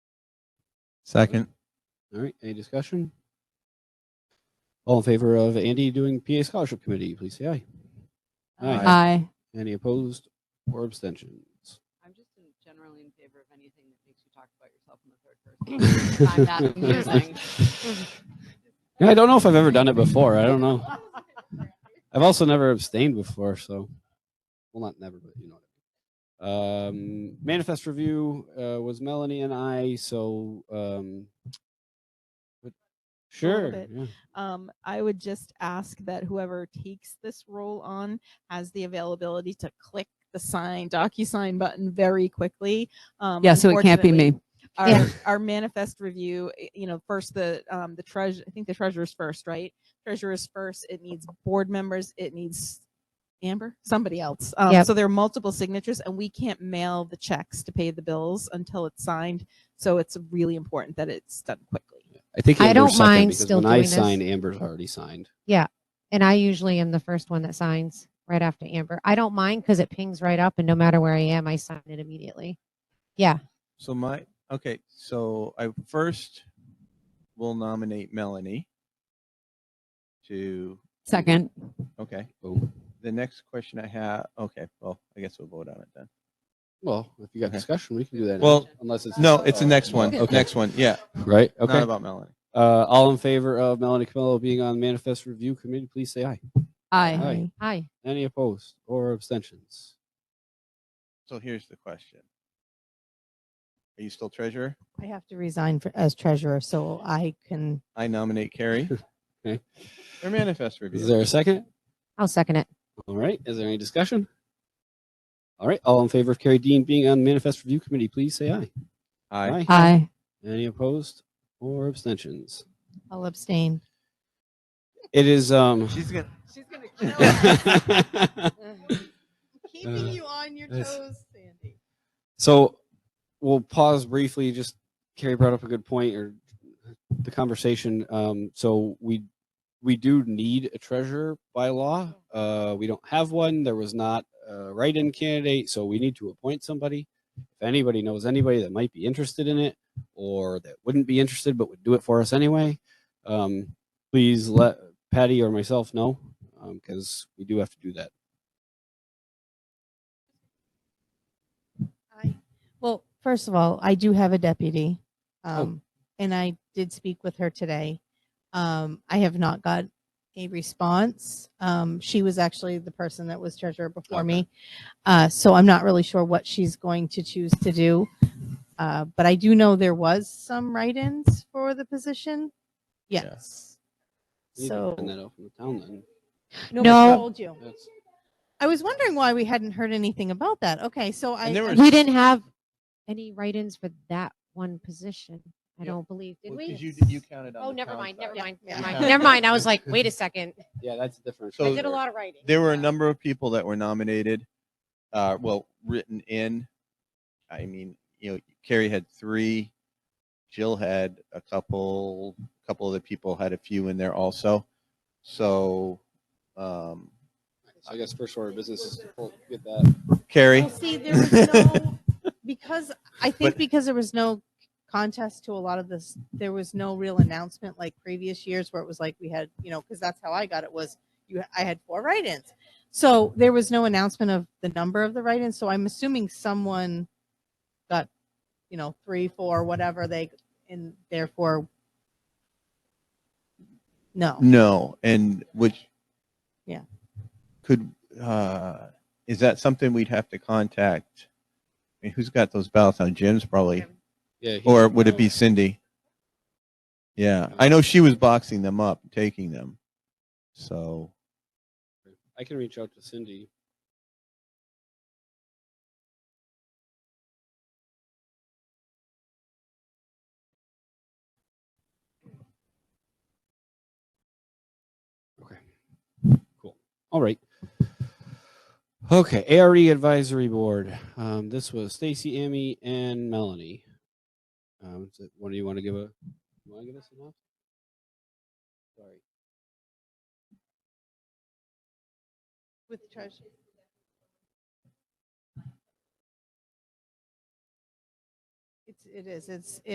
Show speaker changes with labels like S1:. S1: Second.
S2: All right, any discussion? All in favor of Andy doing PA Scholarship Committee, please say aye. Aye.
S3: Aye.
S2: Any opposed or abstentions?
S4: I'm just in- generally in favor of anything that makes you talk about yourself in the third person. Find that amusing.
S2: Yeah, I don't know if I've ever done it before. I don't know. I've also never abstained before, so well, not never, but you know. what I mean. Um, manifest review uh, was Melanie and I, so um, but sure,
S5: bit.
S2: yeah.
S5: um, I would just ask that whoever takes this role on has the availability to click the sign DocuSign button very quickly. Um,
S3: Yeah, so it can't be
S5: unfortunately,
S3: me.
S5: Our,
S3: Yeah.
S5: our manifest review, i- you know, first the um, the treasure. I think the treasurer's first, right? Treasurer's first. It needs board members. It needs Amber, somebody else. Um,
S6: Yep.
S5: So there are multiple signatures, and we can't mail the checks to pay the bills until it's signed. So it's really important that it's done quickly.
S2: I think
S6: I
S2: Amber's
S6: don't
S2: second
S6: mind
S2: because
S6: still
S2: when I
S6: doing this.
S2: sign, Amber's already signed.
S6: And I usually am the first one that signs right after Amber. I don't mind because it pings right up and no matter where I am, I sign it immediately. Yeah.
S1: So my, okay, so I first will nominate Melanie to,
S3: Second.
S1: okay.
S2: Boom.
S1: The next question I have, okay, well, I guess we'll vote on it then.
S2: Well, if you got
S1: Okay.
S2: discussion, we can do that. now,
S1: Well,
S2: unless it's Oh,
S1: No, it's the next one,
S2: Okay.
S1: next one, yeah,
S2: right.
S1: not
S2: Okay.
S1: about Melanie.
S2: Uh, all in favor of Melanie Camillo being on manifest review committee, please say aye.
S3: Aye.
S6: Hi.
S2: Any opposed or abstentions?
S1: So here's the question. Are you still treasurer?
S7: I have to resign for, as treasurer, so I can
S1: I nominate Carrie.
S2: Okay.
S1: Or manifest
S2: Is
S1: review.
S2: there a second?
S6: I'll second it.
S2: All right. Is there any discussion? All right. All in favor of Carrie Dean being on manifest review committee, please say aye.
S1: Aye.
S3: Aye.
S2: Any opposed or abstentions?
S7: I'll abstain.
S2: It is um.
S1: She's gonna,
S4: She's gonna kill us.
S2: Uh,
S4: Keeping you on your
S2: that's-
S4: toes, Sandy.
S2: So we'll pause briefly. Just Carrie brought up a good point or the conversation. Um, so we we do need a treasurer by law.
S4: Mm-hmm.
S2: Uh, we don't have one. There was not a write-in candidate, so we need to appoint somebody. If anybody knows anybody that might be interested in it or that wouldn't be interested but would do it for us anyway, um, please let Patty or myself know because um, we do have to do that.
S7: I, well, first of all, I do have a deputy,
S1: Oh.
S7: um, and I did speak with her today. Um, I have not got a response. Um, she was actually the person that was treasurer before
S2: Okay.
S7: me, uh, so I'm not really sure what she's going to choose to do. Uh, but I do know there was some write-ins for the position.
S1: Yeah.
S7: Yes.
S2: We need to
S7: So
S2: find that out from the town then.
S7: no,
S6: No.
S7: I told you.
S2: That's-
S7: I was wondering why we hadn't heard anything about that. Okay, so I
S1: And there
S7: I-
S1: was-
S6: We didn't have any write-ins for that one position. I
S1: Yeah.
S6: don't believe, did
S1: Well,
S6: we?
S1: 'cause you, you counted on.
S6: Oh,
S1: the
S6: never
S1: town
S6: mind,
S1: side.
S6: never mind, never
S1: Yeah.
S6: mind. Never mind. I was like, wait a second.
S2: Yeah, that's different.
S1: So-
S6: I did a lot of writing.
S1: There were a number of people that were nominated, uh, well, written in. I mean, you know, Carrie had three, Jill had a couple, a couple of the people had a few in there also. So, um,
S2: So I guess first order of business is to pull- get that.
S1: Carrie,
S7: Well, see, there was no because I think
S1: But-
S7: because there was no contest to a lot of this, there was no real announcement like previous years where it was like we had, you know, because that's how I got it was you I had four write-ins. So there was no announcement of the number of the write-ins. So I'm assuming someone got, you know, three, four, whatever they and therefore no.
S1: no, and which.
S7: Yeah.
S1: Could, uh, is that something we'd have to contact? I mean, who's got those ballots on? Jim's probably,
S2: Yeah. he-
S1: or would it be Cindy? Yeah, I know she was boxing them up, taking them. So,
S2: I can reach out to Cindy. Okay. Cool. All right. Okay, ARE Advisory Board. Um, this was Stacy, Amy, and Melanie. Um, so what do you want to give a? You want to give us a? Sorry.
S7: with treasure. It's, it is, it's,